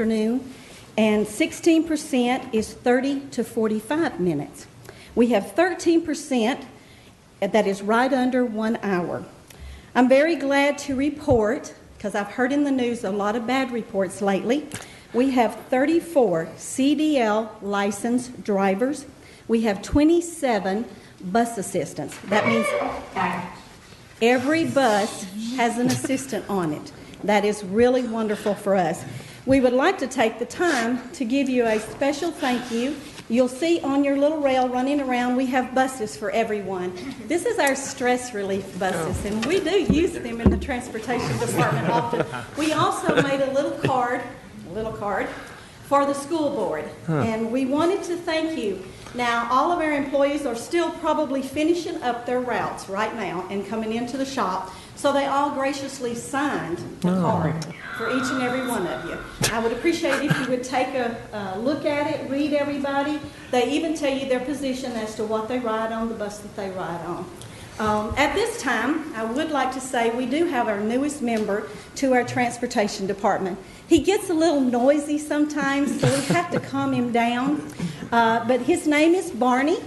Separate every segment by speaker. Speaker 1: afternoon, and 16% is 30 to 45 minutes. We have 13% that is right under one hour. I'm very glad to report, because I've heard in the news a lot of bad reports lately, we have 34 CDL licensed drivers. We have 27 bus assistants. That means Every bus has an assistant on it. That is really wonderful for us. We would like to take the time to give you a special thank you. You'll see on your little rail running around, we have buses for everyone. This is our stress relief buses, and we do use them in the transportation department often. We also made a little card, a little card, for the school board, and we wanted to thank you. Now, all of our employees are still probably finishing up their routes right now and coming into the shop, so they all graciously signed the card for each and every one of you. I would appreciate if you would take a, a look at it, read everybody. They even tell you their position as to what they ride on, the bus that they ride on. Um, At this time, I would like to say we do have our newest member to our transportation department. He gets a little noisy sometimes, so we have to calm him down. Uh, But his name is Barney,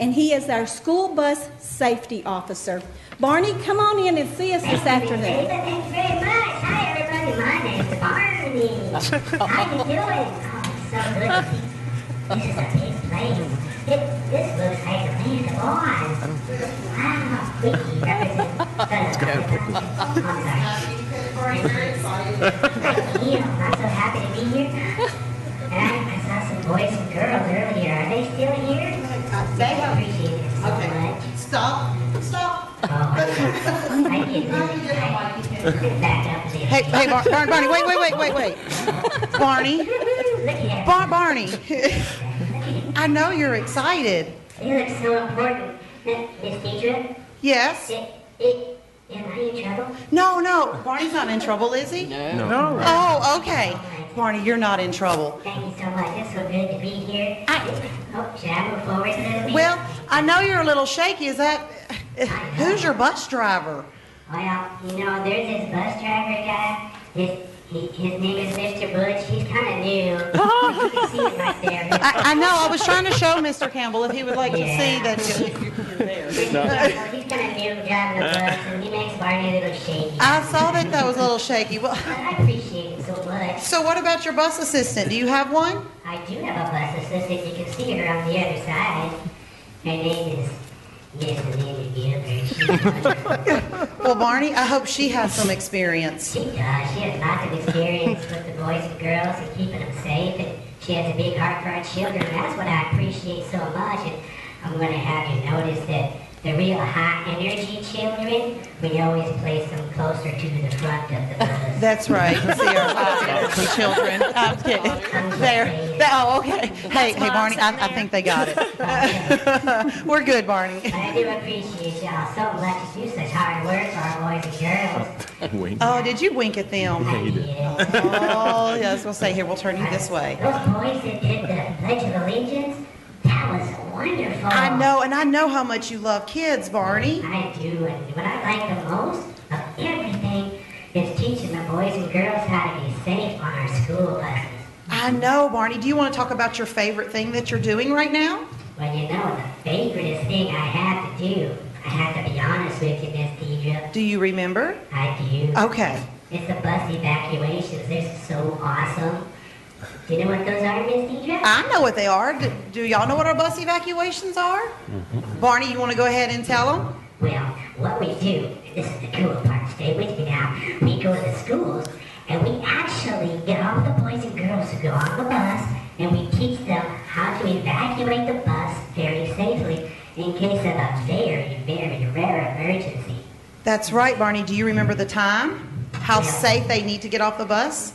Speaker 1: and he is our school bus safety officer. Barney, come on in and see us this afternoon.
Speaker 2: Thanks very much. Hi, everybody. My name's Barney. How you doing? Oh, so good. This is a big place. It, this looks like a land of Oz. Wow, Vicky, that is Let's go. I'm so happy to be here. And I, I saw some boys and girls earlier. Are they still here? They appreciate it so much.
Speaker 3: Stop, stop.
Speaker 2: I did. I back up there.
Speaker 3: Hey, hey, Bar- Bar- Barney, wait, wait, wait, wait, wait. Barney,
Speaker 2: Look at
Speaker 3: Bar- Barney. I know you're excited.
Speaker 2: You look so important. Miss Miss Deidre,
Speaker 3: Yes?
Speaker 2: it, it, am I in trouble?
Speaker 3: No, no, Barney's not in trouble, is he?
Speaker 4: No.
Speaker 3: Oh, okay. Barney, you're not in trouble.
Speaker 2: Thank you so much. It's so good to be here.
Speaker 3: I-
Speaker 2: Oh, should I move forward a little bit?
Speaker 3: Well, I know you're a little shaky. Is that, who's your bus driver?
Speaker 2: Well, you know, there's this bus driver guy. His, he, his name is Mr. Butch. He's kind of new. you can see him right there.
Speaker 3: I, I know, I was trying to show Mr. Campbell if he would like to see that.
Speaker 2: He's kind of new driving the bus, and he makes Barney a little shaky.
Speaker 3: I saw that that was a little shaky. Well,
Speaker 2: But I appreciate it so much.
Speaker 3: so what about your bus assistant? Do you have one?
Speaker 2: I do have a bus assistant. You can see her on the other side. Her name is Miss Amanda Gilbert. She,
Speaker 3: Well, Barney, I hope she has some experience.
Speaker 2: she does. She has lots of experience with the boys and girls and keeping them safe. And she has a big heart for our children. That's what I appreciate so much. And I'm going to have you notice that the real high energy children, we always place them closer to the front of the bus.
Speaker 3: That's right. See our high-energy children. I'm kidding. There. That- Oh, okay. Hey, hey, Barney. I, I think they got it. We're good, Barney.
Speaker 2: I do appreciate y'all so much. You do such hard work for our boys and girls.
Speaker 4: Wink.
Speaker 3: Oh, did you wink at them?
Speaker 2: I did.
Speaker 3: Oh, yeah. I was gonna say here. We'll turn you this way.
Speaker 2: Those boys that did the Pledge of Allegiance, that was wonderful.
Speaker 3: I know, and I know how much you love kids, Barney.
Speaker 2: I do, and what I like the most of everything is teaching the boys and girls how to be safe on our school buses.
Speaker 3: I know, Barney. Do you want to talk about your favorite thing that you're doing right now?
Speaker 2: Well, you know, the favoriteest thing I have to do, I have to be honest with you, Miss Deidre,
Speaker 3: Do you remember?
Speaker 2: I do.
Speaker 3: Okay.
Speaker 2: It's the bus evacuations. They're so awesome. Do you know what those are, Miss Deidre?
Speaker 3: I know what they are. Do, do y'all know what our bus evacuations are? Barney, you want to go ahead and tell them?
Speaker 2: Well, what we do, this is the cool part, stay with me now. We go to the schools and we actually get all the boys and girls who go on the bus and we teach them how to evacuate the bus very safely in case of a very, very rare emergency.
Speaker 3: That's right, Barney. Do you remember the time? How safe they need to get off the bus?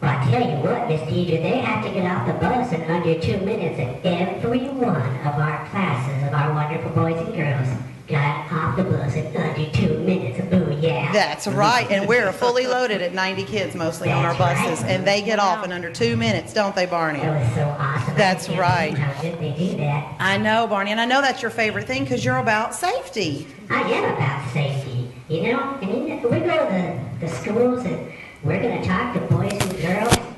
Speaker 2: Well, I tell you what, Miss Deidre, they have to get off the bus in under two minutes and every one of our classes of our wonderful boys and girls got off the bus in under two minutes. Boo, yeah.
Speaker 3: That's right. And we're fully loaded at 90 kids mostly on our buses, and they get off in under two minutes, don't they, Barney?
Speaker 2: That was so awesome. I
Speaker 3: That's
Speaker 2: can't
Speaker 3: right.
Speaker 2: believe How did they do that?
Speaker 3: I know, Barney, and I know that's your favorite thing because you're about safety.
Speaker 2: I am about safety, you know? I mean, we go to the, the schools and we're going to talk to boys and girls